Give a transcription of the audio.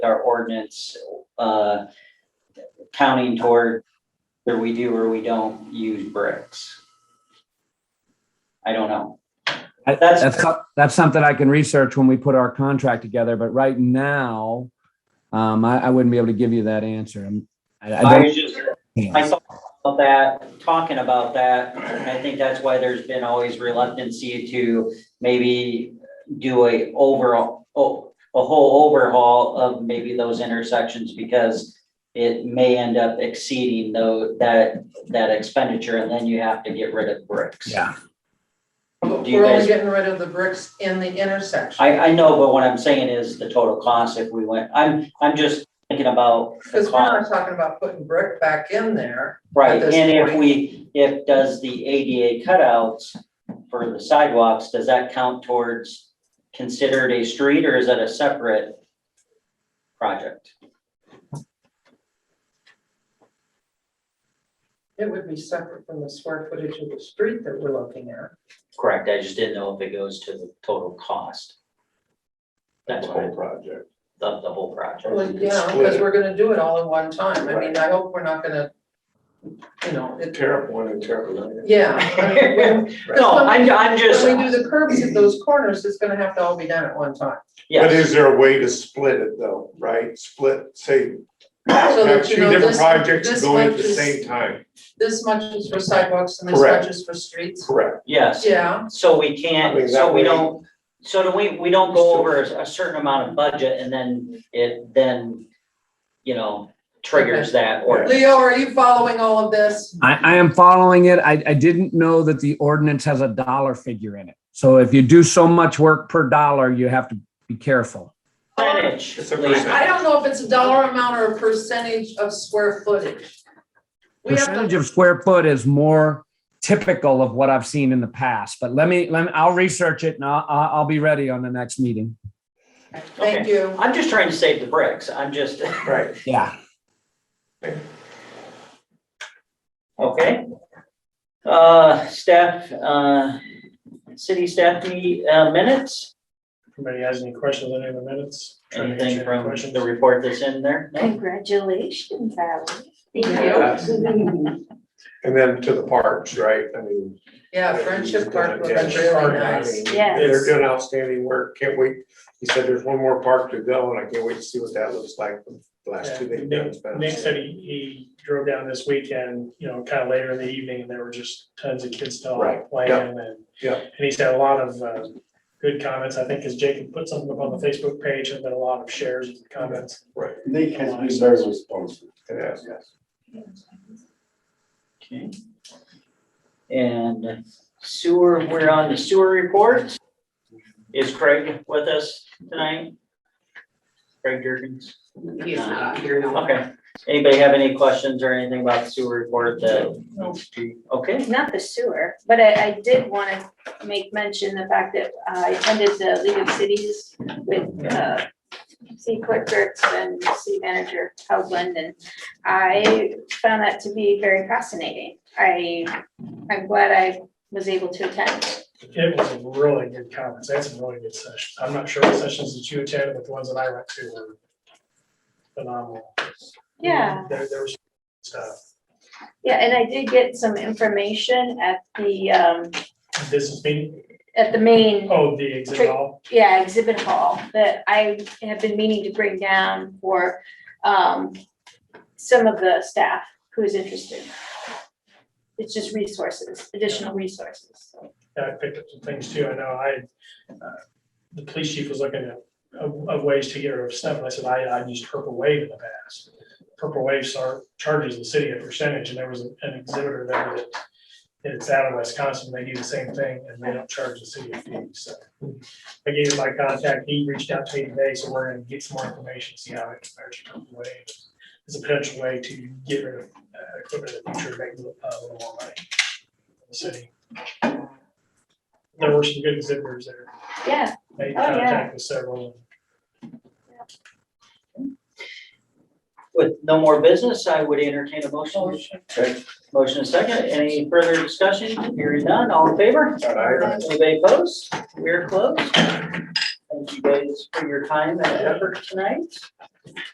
our ordinance, uh, counting toward whether we do or we don't use bricks. I don't know. I- That's- That's, co- that's something I can research when we put our contract together, but right now, um, I, I wouldn't be able to give you that answer. I'm- I, I I don't. was just, I saw about that, talking about that, and I think that's why there's been always reluctancy to maybe do a overall, oh, a whole overhaul of maybe those intersections because it may end up exceeding though, that, that expenditure, and then you have to get rid of bricks. Yeah, Do you We're guys- only getting rid of the bricks in the intersection, I, I know, but what I'm saying is the total cost if we went, I'm, I'm just thinking about the because we're cost. not talking about putting brick back in there. Right, at this and if point. we, if does the ADA cutouts for the sidewalks, does that count towards considered a street or is that a separate project? It would be separate from the square footage of the street that we're looking at. Correct, I just didn't know if it goes to the total cost. That's the what, I- whole project. of the whole project. Well, yeah, because we're gonna do it all in one time. I mean, I hope we're not gonna, you know, it, Tear up one and tear up another. yeah. I mean, when- No, I'm, I'm just, When we do the curbs at those corners, it's gonna have to all be done at one time. But yes, is there a way to split it though, right? Split, say, So have that, two you know, different this, projects this going at much the is- same time, this much is for sidewalks and this much Correct. is for streets. correct? yes. Yeah, So we I mean, can't, that so we way- don't, so do we, we don't go over a a certain amount of budget and then it then, you know, triggers that or. Leo, are you following all of this? I, I am following it. I, I didn't know that the ordinance has a dollar figure in it. So if you do so much work per dollar, you have to be careful. Percentage, It's a Lisa. percent. I don't know if it's a dollar amount or a percentage of square footage. We have Percentage to, of square foot is more typical of what I've seen in the past, but let me, let me, I'll research it and I'll, I'll I'll be ready on the next meeting. thank you. I'm just trying to save the bricks. I'm just, Right. Yeah. okay. Uh, staff, uh, city staff meet, uh, minutes, Anybody has any questions on any of the minutes? Trying to answer anything any from questions? the report that's in there? No? Congratulations, Alex. Thank And then to the parks, right? I mean. Yeah, Friendship Park was Yeah, Friendship Park, really I nice. mean, Yes. They're doing outstanding work. Can't wait. He said there's one more park to go and I can't wait to see what that looks like. The last two Yeah, they've done. Nick it's been Nick said he, he drove down this weekend, you know, kind of later in the evening, and there were just tons of kids still Right, out playing yeah, and. yeah. And he's had a lot of, uh, good comments, I think, as Jacob put something up on the Facebook page, and been a lot of shares and comments. Nick has been very responsive. It has. Okay. And sewer, we're on the sewer report. Is Craig with us tonight? Craig Jurgens? He's not here now. Okay. Anybody have any questions or anything about the sewer report that? Okay, Not the sewer, but I, I did want to make mention the fact that I attended the League of Cities with, uh, city clerk Gertz and city manager Howland, and I found that to be very fascinating. I, I'm glad I was able to attend. It was really good comments, they had some really good sessions, I'm not sure what sessions that you attended, but the ones that I went to were phenomenal. Yeah. There, there was stuff. Yeah, and I did get some information at the, um, business meeting, at the main oh, the exhibit hall, yeah, exhibit hall that I have been meaning to bring down for um some of the staff who's interested. It's just resources, additional resources, so. Yeah, I picked up some things too, I know I, uh, the police chief was looking at, of, of ways to get rid of stuff, and I said, I, I used purple wave in the past. Purple wave start, charges the city a percentage, and there was an exhibitor there that, it's out of Wisconsin, they do the same thing, and they don't charge the city a fee, so. I gave him my contact, he reached out to me today, so we're gonna get some more information, see how it compares to purple wave. It's a potential way to get rid of, uh, equipment in the future, make a little uh, a little more money for the city. There were some good exhibitors there. Yeah, They Oh, yeah. contacted several. with no more business, I would entertain a motion. Okay. Motion and second, any further discussion? Hearing none, all in favor? All right. Anybody opposed? We're closed. Thank you guys for your time and effort tonight.